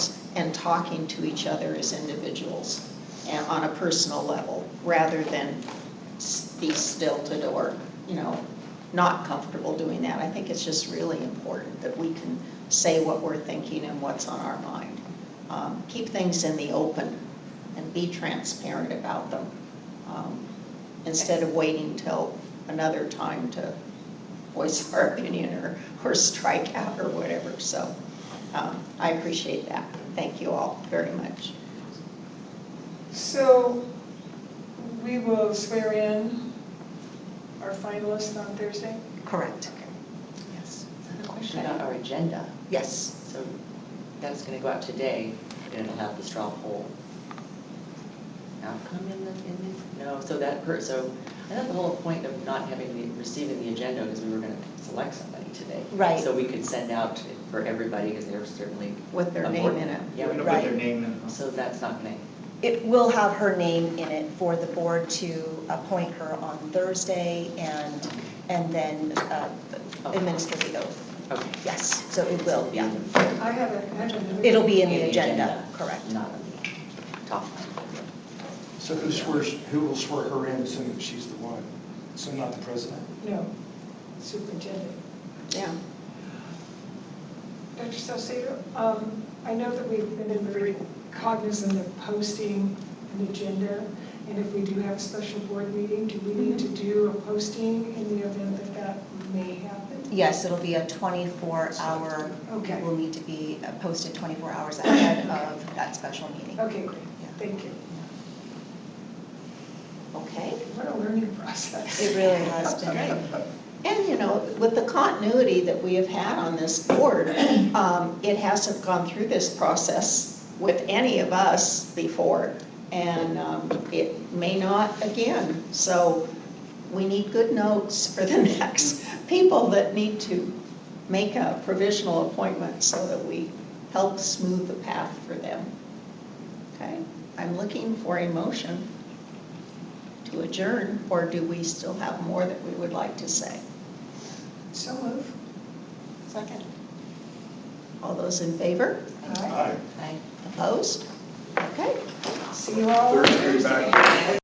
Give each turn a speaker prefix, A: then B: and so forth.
A: talking to each other as individuals and on a personal level, rather than s- be stilted or, you know, not comfortable doing that. I think it's just really important that we can say what we're thinking and what's on our mind. Um, Keep things in the open and be transparent about them, um, instead of waiting till another time to voice our opinion or, or strike out or whatever. So um, I appreciate that. Thank you all very much.
B: So we will swear in our finalists on Thursday?
A: Correct. Yes.
C: Question about our agenda.
A: Yes.
C: So that's going to go out today, and it'll have the straw poll outcome in the, in the, no, so that, per- so I thought the whole point of not having, the receiving the agenda is we were going to select somebody today.
A: Right.
C: So we could send out for everybody, because they're certainly.
A: With their
C: a
A: name
C: board-
A: in it.
C: Yeah,
D: We're gonna
C: we-
D: put their
E: Right.
D: name in.
C: so that's not going to,
E: It will have her name in it for the board to appoint her on Thursday and, and then uh, administer the oath.
C: okay.
E: Yes, so it will, yeah.
B: I haven't, I haven't.
E: It'll be in the agenda, correct.
C: Not on the top line.
F: So who swears, who will swear her in, assuming she's the one? So not the president?
B: No, superintendent.
A: Yeah.
B: Dr. Salcedo, um, I know that we've been very cognizant of posting an agenda, and if we do have a special board meeting, do we need to
E: Mm-hmm.
B: do a posting in the event that that may happen?
E: Yes, it'll be a 24-hour,
B: Okay.
E: will need to be posted 24 hours ahead of that special meeting.
B: Okay, great, thank you.
A: Okay.
B: What a learning process.
E: It really has been.
A: And, you know, with the continuity that we have had on this board, um, it hasn't gone through this process with any of us before, and um, it may not again. So we need good notes for the next people that need to make a provisional appointment so that we help smooth the path for them. Okay? I'm looking for a motion to adjourn, or do we still have more that we would like to say?
B: So move.
A: Second. All those in favor?
B: All right.
F: Aye.
C: Aye.
A: Opposed? Okay.
B: See you all.
F: Thursday back.